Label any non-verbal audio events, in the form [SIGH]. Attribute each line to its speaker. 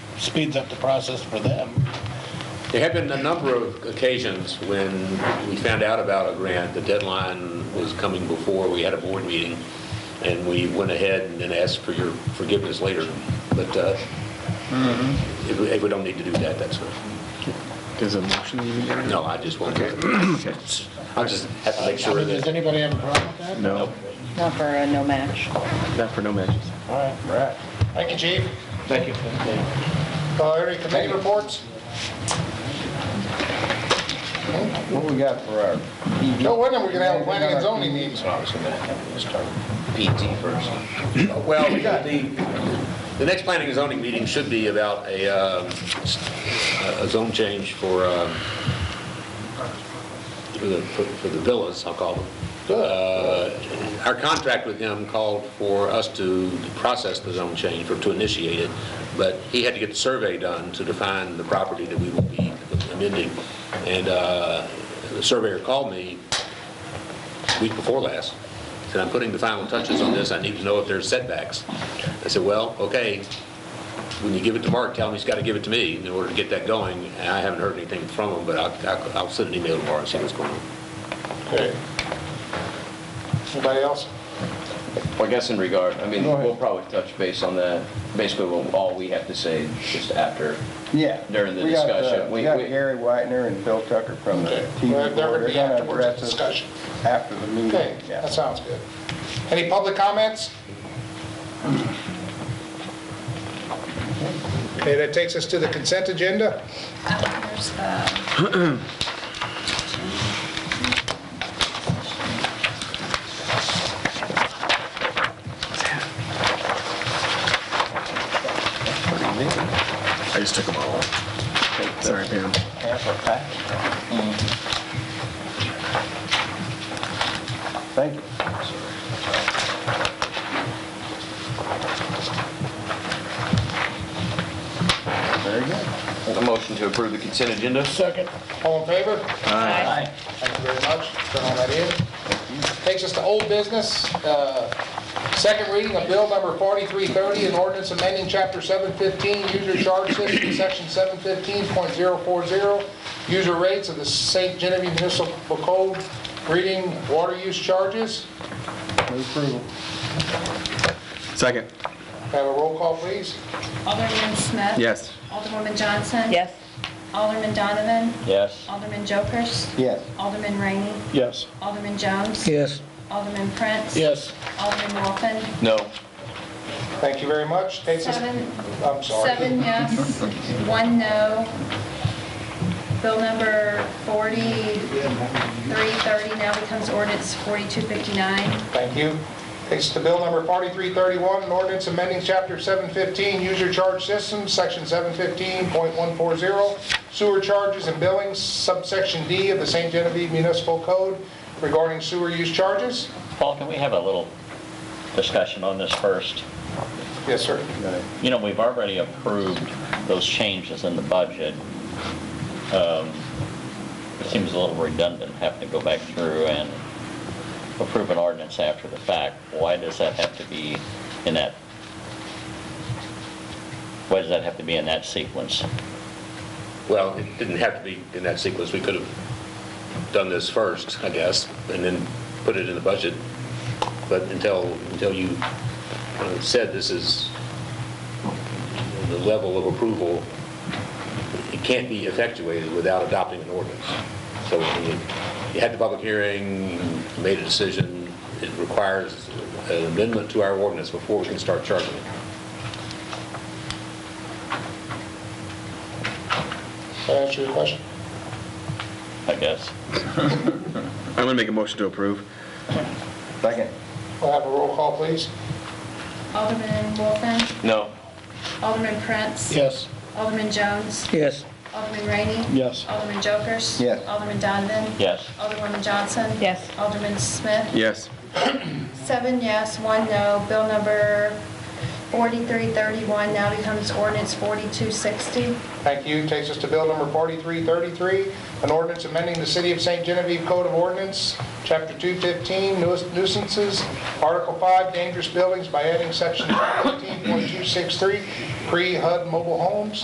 Speaker 1: speeds up the process for them.
Speaker 2: There have been a number of occasions when we found out about a grant, the deadline was coming before, we had a board meeting, and we went ahead and then asked for your forgiveness later, but uh, if we- if we don't need to do that, that's fine.
Speaker 3: There's a motion you need to
Speaker 2: No, I just want to,
Speaker 3: Okay.
Speaker 2: [COUGHS] I just have to make
Speaker 1: I
Speaker 2: sure
Speaker 1: mean, Does
Speaker 2: that,
Speaker 1: anybody have a problem with that?
Speaker 3: No,
Speaker 4: Not for a no match.
Speaker 3: not for no matches.
Speaker 1: All right, all right. Thank you, chief.
Speaker 3: Thank you.
Speaker 1: Uh, Any committee reports?
Speaker 5: What we got for our PD?
Speaker 1: No wonder we're gonna have a planning and zoning meeting. Let's start.
Speaker 5: PT first.
Speaker 2: well, the, the next planning and zoning meeting should be about a, um, a zone change for, um, for the, for for the villas, I'll call them. Uh, Our contract with him called for us to process the zone change or to initiate it, but he had to get the survey done to define the property that we will be amending. And uh, the surveyor called me week before last, said, "I'm putting the final touches on this, I need to know if there's setbacks." I said, "Well, okay, when you give it to Mark, tell him he's got to give it to me in order to get that going." And I haven't heard anything from him, but I'll- I'll I'll send an email tomorrow and see what's going on.
Speaker 1: Okay. Anybody else?
Speaker 5: Well, I guess in regard, I mean,
Speaker 1: Go ahead.
Speaker 5: we'll probably touch base on that. Basically, we'll- all we have to say just after.
Speaker 6: Yeah.
Speaker 5: During the
Speaker 6: We got, uh,
Speaker 5: discussion, we-
Speaker 6: We got
Speaker 5: we-
Speaker 6: Gary Whitener and Bill Tucker from the
Speaker 1: Okay.
Speaker 6: TV
Speaker 1: Well,
Speaker 6: board.
Speaker 1: They're gonna be
Speaker 6: They're gonna
Speaker 1: afterwards,
Speaker 6: address us
Speaker 1: discussion.
Speaker 6: After the meeting.
Speaker 1: Okay,
Speaker 6: yeah.
Speaker 1: that sounds good. Any public comments? Okay, that takes us to the consent agenda.
Speaker 4: There's the
Speaker 3: I just took them all. Sorry, Pam.
Speaker 6: Thank you. Very good.
Speaker 5: A motion to approve the consent agenda?
Speaker 1: Second. All in favor? Thank you very much. Turn all that in. Takes us to old business. uh, Second reading of bill number 4330, an ordinance amending chapter 715, user charge system, section 715.040, user rates of the St. Genevieve Municipal Code, reading water use charges.
Speaker 6: Move approval.
Speaker 3: Second.
Speaker 1: Can I Have a roll call, please.
Speaker 7: Alderman Smith.
Speaker 3: Yes.
Speaker 7: Alderwoman Johnson.
Speaker 4: Yes.
Speaker 7: Alderman Donovan.
Speaker 5: Yes.
Speaker 7: Alderman Jokers.
Speaker 6: Yes.
Speaker 7: Alderman Rainey.
Speaker 6: Yes.
Speaker 7: Alderman Jones.
Speaker 6: Yes.
Speaker 7: Alderman Prince.
Speaker 1: Yes.
Speaker 7: Alderman Wolfen.
Speaker 5: No.
Speaker 1: Thank you very much. Takes us,
Speaker 7: Seven,
Speaker 1: I'm sorry.
Speaker 7: seven yes, one no. Bill number 4330 now becomes ordinance 4259.
Speaker 1: Thank you. Takes us to bill number 4331, an ordinance amending chapter 715, user charge systems, section 715.140, sewer charges and billings, subsection D of the St. Genevieve Municipal Code regarding sewer use charges.
Speaker 8: Paul, can we have a little discussion on this first?
Speaker 1: Yes, sir.
Speaker 8: You know, we've already approved those changes in the budget. Um, It seems a little redundant having to go back through and approve an ordinance after the fact. Why does that have to be in that, why does that have to be in that sequence?
Speaker 2: Well, it didn't have to be in that sequence, we could have done this first, I guess, and then put it in the budget, but until, until you uh, said this is the level of approval, it can't be effectuated without adopting an ordinance. So you you had the public hearing, you made a decision, it requires an amendment to our ordinance before we can start charging it.
Speaker 1: Does that answer your question?
Speaker 8: I guess.
Speaker 3: I'm gonna make a motion to approve.
Speaker 6: Second.
Speaker 1: We'll have a roll call, please.
Speaker 7: Alderman Wolfen.
Speaker 5: No.
Speaker 7: Alderman Prince.
Speaker 1: Yes.
Speaker 7: Alderman Jones.
Speaker 6: Yes.
Speaker 7: Alderman Rainey.
Speaker 6: Yes.
Speaker 7: Alderman Jokers.
Speaker 6: Yes.
Speaker 7: Alderman Donovan.
Speaker 8: Yes.
Speaker 7: Alderwoman Johnson.
Speaker 4: Yes.
Speaker 7: Alderman Smith.
Speaker 3: Yes.
Speaker 7: Seven yes, one no. Bill number 4331 now becomes ordinance 4260.
Speaker 1: Thank you. Takes us to bill number 4333, an ordinance amending the City of St. Genevieve Code of Ordinance, Chapter 215, nuis- nuisances, Article 5, dangerous buildings by adding section 15.263, pre-HUD mobile homes.